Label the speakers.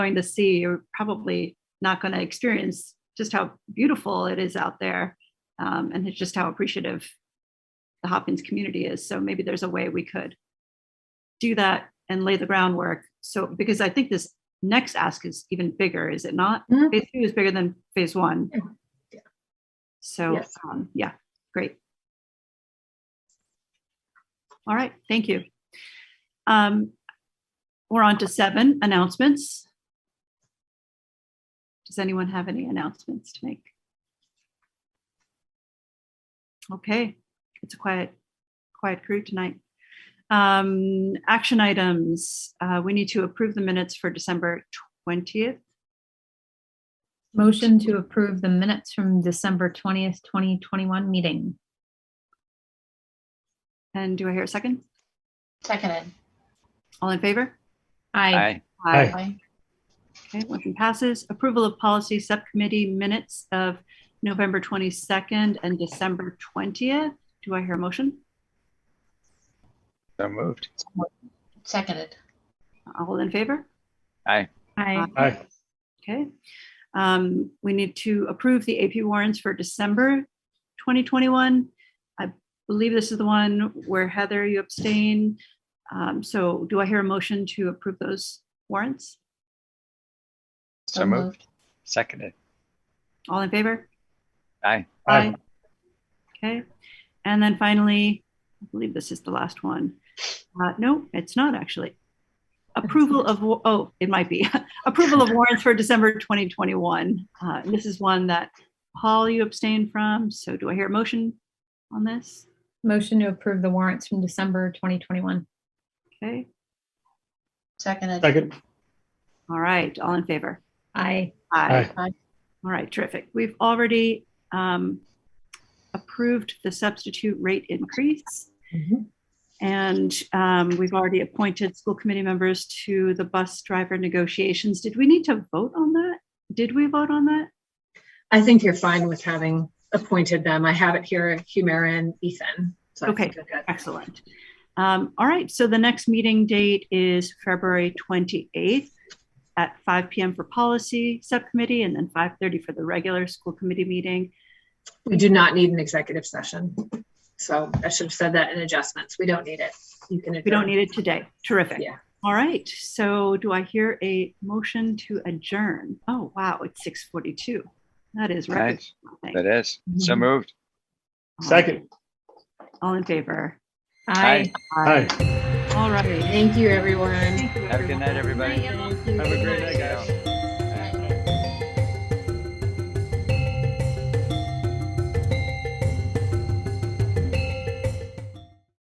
Speaker 1: going to see, you're probably not going to experience just how beautiful it is out there. Um, and it's just how appreciative the Hopkins community is. So maybe there's a way we could do that and lay the groundwork. So, because I think this next ask is even bigger, is it not?
Speaker 2: Mhm.
Speaker 1: Phase two is bigger than phase one.
Speaker 2: Yeah.
Speaker 1: So,
Speaker 2: Yes.
Speaker 1: um, yeah, great. All right, thank you. Um, we're on to seven announcements. Does anyone have any announcements to make? Okay, it's a quiet, quiet crew tonight. Um, action items, uh, we need to approve the minutes for December twentieth.
Speaker 2: Motion to approve the minutes from December twentieth, twenty twenty-one meeting.
Speaker 1: And do I hear a second?
Speaker 3: Seconded.
Speaker 1: All in favor?
Speaker 2: Aye.
Speaker 4: Aye.
Speaker 3: Aye.
Speaker 1: Okay, motion passes. Approval of policy subcommittee minutes of November 22nd and December 20th. Do I hear a motion?
Speaker 4: So moved.
Speaker 3: Seconded.
Speaker 1: All in favor?
Speaker 2: Aye.
Speaker 4: Aye.
Speaker 1: Okay. Um, We need to approve the AP warrants for December 2021. I believe this is the one where Heather, you abstain. Um, So do I hear a motion to approve those warrants?
Speaker 4: So moved. Seconded.
Speaker 1: All in favor?
Speaker 4: Aye.
Speaker 1: Aye. Okay, and then finally, I believe this is the last one. Uh, no, it's not actually. Approval of, wa- oh, it might be. Approval of warrants for December 2021. Uh, this is one that Paul, you abstained from. So do I hear a motion on this?
Speaker 2: Motion to approve the warrants from December twenty twenty-one.
Speaker 1: Okay,
Speaker 3: Seconded.
Speaker 4: Second.
Speaker 1: all right, all in favor?
Speaker 2: Aye.
Speaker 4: Aye.
Speaker 1: All right, terrific. We've already um, approved the substitute rate increase.
Speaker 2: Mhm.
Speaker 1: And um, we've already appointed school committee members to the bus driver negotiations. Did we need to vote on that? Did we vote on that?
Speaker 5: I think you're fine with having appointed them. I have it here, Humira and Ethan. So I
Speaker 1: Okay.
Speaker 5: think you're good.
Speaker 1: Excellent. Um, All right, so the next meeting date is February 28th at 5 PM for policy subcommittee and then 5:30 for the regular school committee meeting.
Speaker 5: We do not need an executive session. So I should have said that in adjustments. We don't need it. You can.
Speaker 1: We
Speaker 5: adjourn.
Speaker 1: don't need it today. Terrific.
Speaker 5: Yeah.
Speaker 1: All right. So do I hear a motion to adjourn? Oh, wow. It's 6:42. That is right.
Speaker 4: Nice. That is. So
Speaker 5: Mhm.
Speaker 4: moved. Second.
Speaker 1: All in favor?
Speaker 2: Aye.
Speaker 4: Aye.
Speaker 1: All right.
Speaker 5: Thank you, everyone.
Speaker 1: Thank you,
Speaker 4: Have a
Speaker 1: everyone.
Speaker 4: good night, everybody. Have a great night, guys.